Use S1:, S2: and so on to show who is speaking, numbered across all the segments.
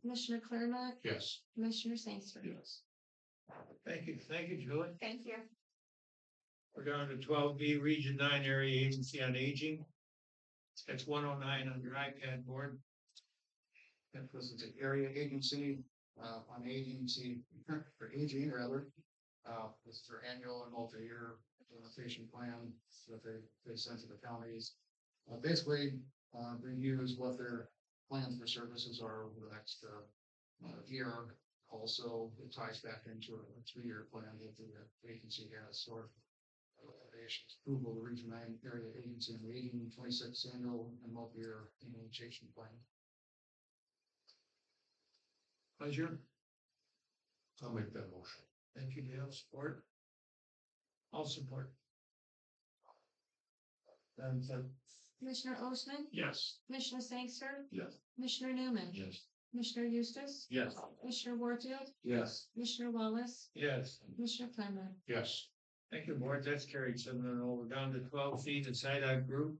S1: Commissioner Claremont,
S2: Yes.
S1: Commissioner Sainsbury.
S2: Yes. Thank you, thank you, Julie.
S1: Thank you.
S2: We're down to twelve B, Region Nine Area Agency on Aging. That's one oh nine on your iPad board. That was the area agency, uh, on agency, for aging rather. Uh, this is their annual and multi-year implementation plan that they, they send to the counties. Uh, basically, uh, reviews what their plans for services are over the next, uh, uh, year. Also, it ties back into a three-year plan that the agency has, or recommendations, approval of region nine area agency and region twenty-six annual and multi-year implementation plan. Pleasure. I'll make that motion. Thank you, Dale. Support? I'll support. And then,
S1: Commissioner Osmann,
S2: yes.
S1: Commissioner Sangster,
S2: Yes.
S1: Commissioner Newman.
S2: Yes.
S1: Commissioner Eustace.
S2: Yes.
S1: Commissioner Warfield,
S2: Yes.
S1: Commissioner Wallace,
S2: Yes.
S1: Commissioner Claremont.
S2: Yes. Thank you, board. That's carried seven and over down to twelve feet and SIDOC group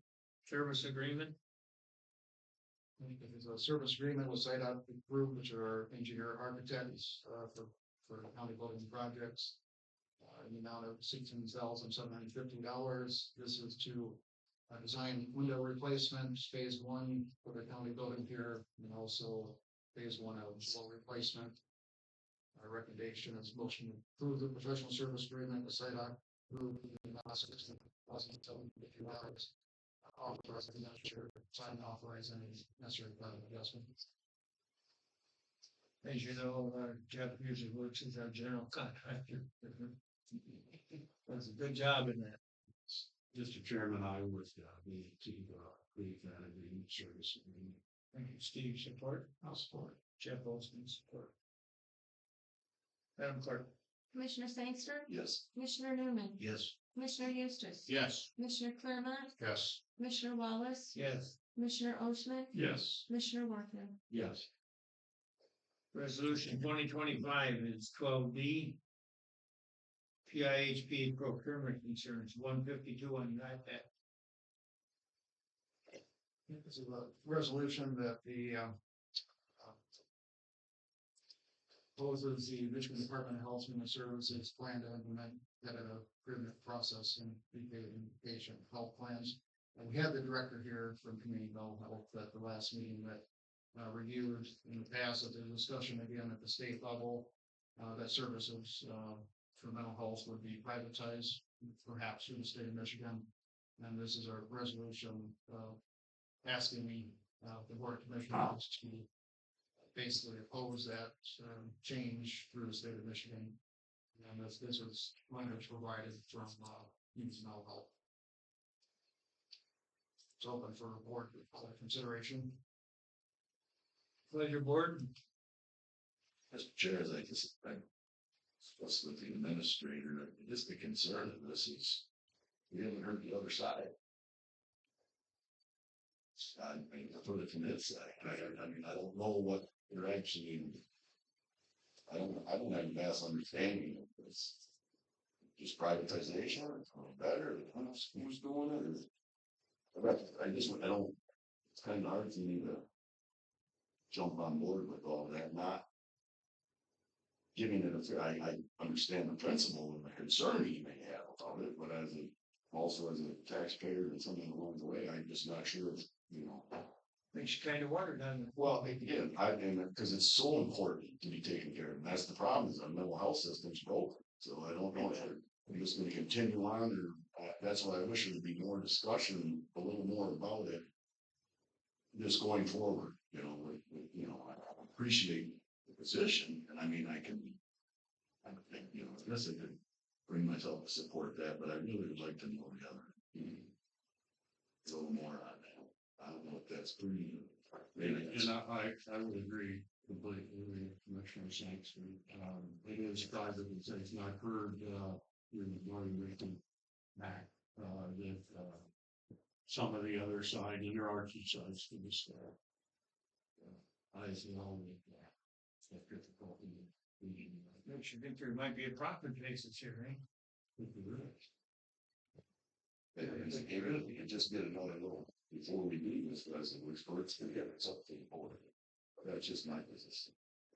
S2: service agreement. There's a service agreement with SIDOC group, which are our engineer architects, uh, for, for county building projects. Uh, in the amount of sixteen thousand seven hundred fifty dollars. This is to uh, design window replacements, phase one for the county building here, and also phase one of wall replacement. Our recommendation is motion to approve the professional service agreement with SIDOC group in the amount of sixteen thousand seven fifty dollars. Authorize the manager to sign and authorize any necessary plan adjustments. As you know, uh, Jeff usually works as our general contractor. Does a good job in that.
S3: Mr. Chairman, I would uh, move to uh, approve that agreement service agreement.
S2: Thank you, Steve. Support? I'll support. Jeff Olson, support. Madam Clerk?
S1: Commissioner Sangster,
S3: Yes.
S1: Commissioner Newman,
S3: Yes.
S1: Commissioner Eustace.
S3: Yes.
S1: Commissioner Claremont,
S3: Yes.
S1: Commissioner Wallace,
S2: Yes.
S1: Commissioner Osmann,
S3: Yes.
S1: Commissioner Warfield.
S3: Yes.
S2: Resolution twenty twenty-five is twelve B. PIHP procurement concerns, one fifty-two on your iPad.
S3: This is a resolution that the
S2: um,
S3: uh,
S2: proposes the Michigan Department of Health Human Services plan to implement that uh, improvement process in patient health plans. And we had the director here from Community Mental Health at the last meeting that uh, reviewed in the past, that there's discussion again at the state level uh, that services uh, for mental health would be privatized, perhaps through the state of Michigan. And this is our resolution uh, asking the, uh, the board of commissioners to basically oppose that um change through the state of Michigan. And this this was language provided from uh Union Mental Health. It's open for board consideration. Pleasure, board.
S3: Mr. Chair, as I just, I discussed with the administrator, just the concern of this is, we haven't heard the other side. I mean, I've heard it from this side, I, I mean, I don't know what they're actually. I don't, I don't have a vast understanding of this. Just privatization, or better, who's, who's doing it, or? I I just, I don't, it's kind of hard for me to jump on board with all that, not giving it a fair, I, I understand the principle and the concern you may have about it, but as a, also as a taxpayer and something along the way, I'm just not sure, if, you know.
S2: Makes you kind of wonder, doesn't it?
S3: Well, again, I, and, because it's so important to be taken care of, and that's the problem, is our mental health system's broken, so I don't know if we're just gonna continue on, or, uh, that's why I wish there'd be more discussion, a little more about it. Just going forward, you know, with, with, you know, I I appreciate the position, and I mean, I can. I don't think, you know, I guess I could bring myself to support that, but I really would like to know the other. A little more on that, I don't know if that's pretty. Maybe
S4: And I, I, I would agree completely with Commissioner Sampson. Um, it is private, it's, it's not heard, uh, in the morning meeting back, uh, that, uh, some of the other side, and there are two sides to this, uh, uh, I see all the, uh, the difficulty in the,
S2: Makes you think there might be a profit basis here, eh? right?
S4: with the rest.
S3: It it- it really, it just did another little, before we do this, resolution, it's, it's up to the board. That's just my business.